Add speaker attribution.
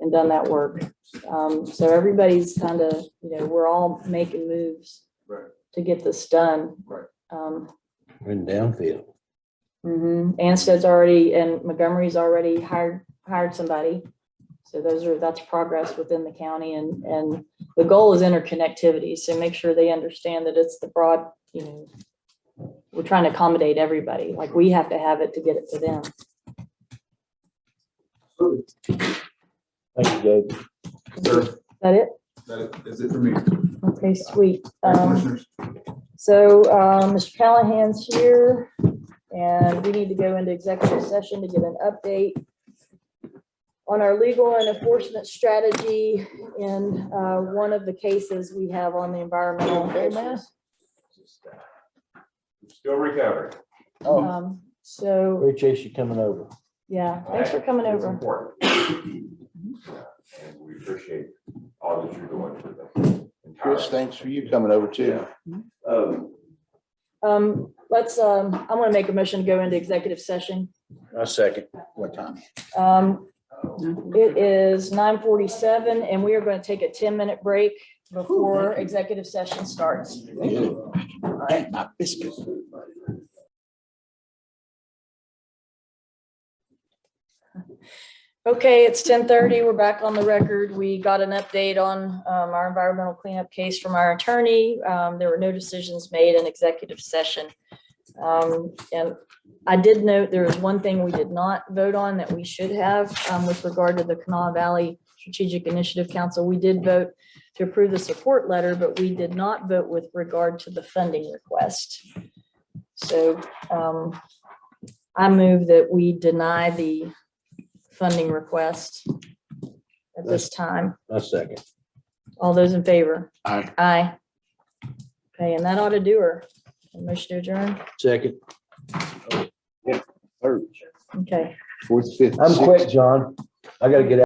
Speaker 1: and done that work. Um, so everybody's kind of, you know, we're all making moves
Speaker 2: Right.
Speaker 1: to get this done.
Speaker 2: Right.
Speaker 1: Um,
Speaker 3: in Downfield.
Speaker 1: mhm. Anstead's already, and Montgomery's already hired, hired somebody. So those are, that's progress within the county and, and the goal is interconnectivity. So make sure they understand that it's the broad, you know, we're trying to accommodate everybody, like we have to have it to get it to them.
Speaker 3: Thank you, Judge.
Speaker 2: Sir,
Speaker 1: Is that it?
Speaker 2: that is it for me.
Speaker 1: Okay, sweet. Um,
Speaker 2: Commissioners,
Speaker 1: So uh, Mr. Callahan's here, and we need to go into executive session to get an update on our legal and enforcement strategy in uh, one of the cases we have on the environmental issues.
Speaker 4: Still recovering.
Speaker 3: Oh,
Speaker 1: Um, So,
Speaker 3: appreciate you coming over.
Speaker 1: yeah, thanks for coming
Speaker 4: It's
Speaker 1: over.
Speaker 4: important. And we appreciate all that you're doing for the entire.
Speaker 5: Chris, thanks for you coming over too.
Speaker 4: Um,
Speaker 1: Um, Let's, um, I'm going to make a motion to go into executive session.
Speaker 5: A second. What time?
Speaker 1: Um, It is nine forty-seven and we are going to take a ten-minute break before executive session starts.
Speaker 5: Thank my biscuit.
Speaker 1: Okay, it's ten thirty. We're back on the record. We got an update on um, our environmental cleanup case from our attorney. Um, There were no decisions made in executive session. Um, And I did note there is one thing we did not vote on that we should have um, with regard to the Kanawha Valley Strategic Initiative Council. We did vote to approve the support letter, but we did not vote with regard to the funding request. So um, I move that we deny the funding request at this time.
Speaker 3: A second.
Speaker 1: All those in favor?
Speaker 5: Aye.
Speaker 1: Aye. Okay, and that ought to do her. Motion to adjourn.
Speaker 3: Second.
Speaker 5: Third,
Speaker 1: Okay.
Speaker 5: fourth, fifth.
Speaker 3: I'm
Speaker 5: sixth.
Speaker 3: quick, John. I gotta get out.